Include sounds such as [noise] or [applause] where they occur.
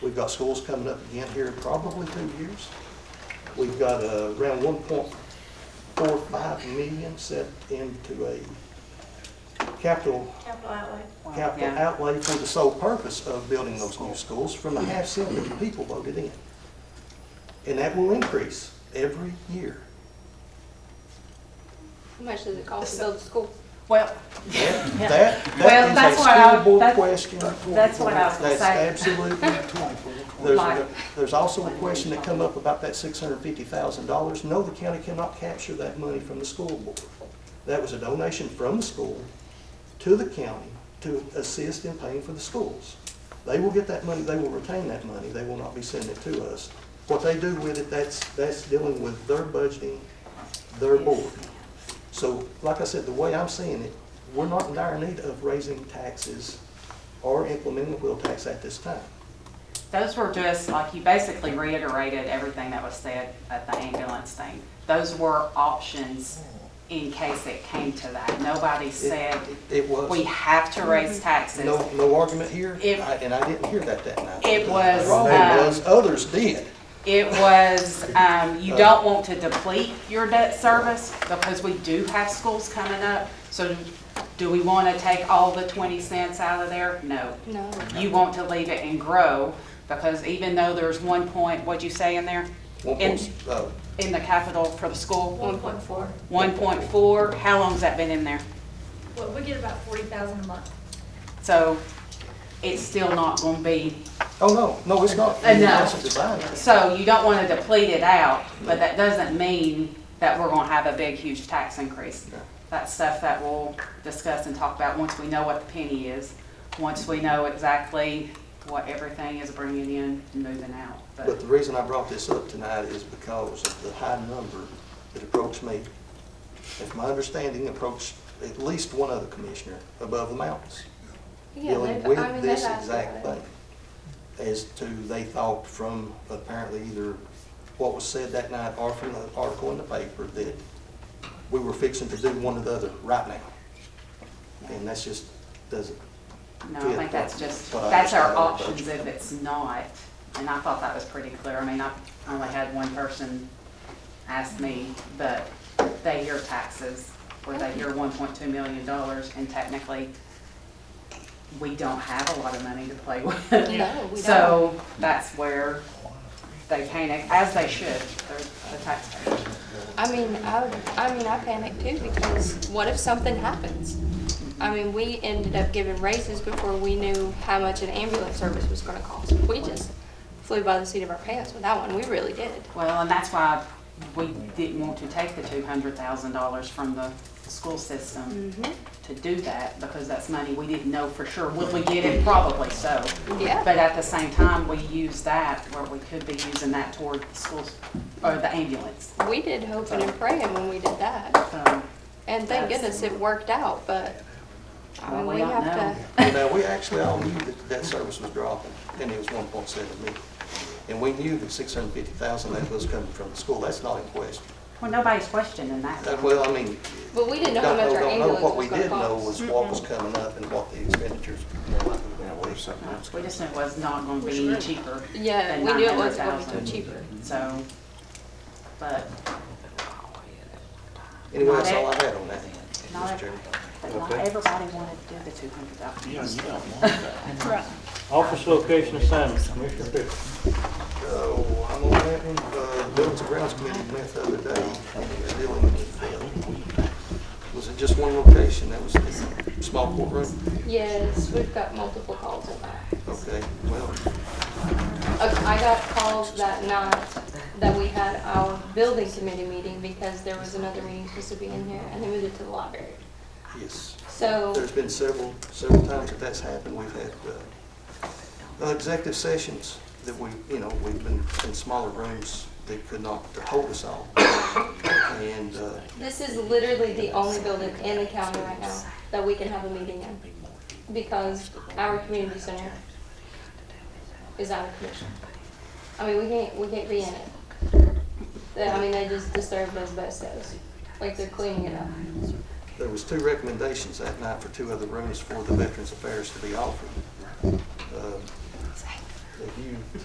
We've got schools coming up again here in probably two years. We've got uh, around one point four five million set into a capital, Capital outlay. capital Yeah. outlay for the sole purpose of building those new schools from the half cent that the people voted in. And that will increase every year. How much does it cost to build a school? Well, That, [laughs] Yeah. that- Well, that that's is a what I- school board that's- question. that's what I was gonna That's say. [laughs] absolutely. There's, a- Right. there's also a question that come up about that six hundred and fifty thousand dollars. No, the county cannot capture that money from the school board. That was a donation from the school to the county to assist in paying for the schools. They will get that money, they will retain that money, they will not be sending it to us. What they do with it, that's, that's dealing with their budgeting, their board. So, like I said, the way I'm seeing it, we're not in dire need of raising taxes or implementing the wheel tax at this time. those were just, like, you basically reiterated everything that was said at the ambulance thing. Those were options in case it came to that. Nobody said, It was. we have to raise taxes. No, no argument here, It- I- and I didn't hear that that night. It was, Wrong um, was, others did. It was, um, Uh, you don't want to deplete your debt service because we do have schools coming up. So do we want to take all the 20 cents out of there? No. No. You want to leave it and grow because even though there's one point, what'd you say in there? One In, point, uh, in the capital for the school? One point four. 1.4, how long's that been in there? Well, we get about forty thousand a month. So it's still not going to be oh, no, no, it's not. Uh, no. That's designed. So you don't want to deplete it out, but that doesn't mean that we're going to have a big, huge tax increase. No. That's stuff that we'll discuss and talk about once we know what the penny is, once we know exactly what everything is bringing in and moving out. But But the reason I brought this up tonight is because of the high number that approached me. If my understanding approached at least one other commissioner above the mountains. Yeah, dealing they've- I mean, with this they've asked exact about thing. it. As to, they thought from apparently either what was said that night or from the article in the paper that we were fixing to do one or the other right now. And that's just, doesn't, no, I think that's just, But I that's our understand all the options if it's not. And I thought that was pretty clear. I mean, I only had one person ask me, but they hear taxes, where they hear one point two million dollars, and technically, we don't have a lot of money to play [laughs] with. No, we So that's where they panic, as they should, they're the taxpayers. I mean, I, I mean, I panic too because what if something happens? I mean, we ended up giving raises before we knew how much an ambulance service was gonna cost. We just flew by the seat of our pants with that one. We really did. Well, and that's why we didn't want to take the two hundred thousand dollars from the school system Mm-hmm. to do that, because that's money we didn't know for sure. Would we get it? Probably so. Yeah. But at the same time, we used that where we could be using that toward the schools, or the ambulance. We did hoping and praying when we did that. So, And thank goodness it worked out, but I mean, Well, we we don't have know. to. you know, we actually all knew that that service was dropping and it was one point seven million. And we knew that six hundred and fifty thousand that was coming from the school, that's not in question. well, nobody's questioning that. Uh, Well, I mean, But we didn't know how don't much know, our don't know, ambulance what was we gonna did know cost. was what was coming up and what the expenditures were likely to be. No, Uh, We just knew it was not gonna be any cheaper. Yeah, than we knew it wasn't gonna be $900,000. cheaper. So, but Anyway, that's all I had on that, Mr. Chairman. But not everybody wanted to do the two hundred dollars. Office location assignments, Commissioner Fisher. So, I'm on that one, uh, Buildings and Grounds Committee met the other day, and they're dealing with, uh, was it just one location, that was the small courtroom? Yes, we've got multiple calls on that. Okay, well, Uh, I got calls that night that we had our building committee meeting because there was another meeting supposed to be in here and they moved it to the library. yes, So, there's been several, several times that that's happened, we've had, uh, uh, executive sessions that we, you know, we've been in smaller rooms that could not hold us all. And, uh, this is literally the only building in the county right now that we can have a meeting in because our community center is out of commission. I mean, we can't, we can't be in it. They- I mean, they just disturbed those bestos, like they're cleaning it up. There was two recommendations that night for two other rooms for the Veterans Affairs to be offered. Uh, If you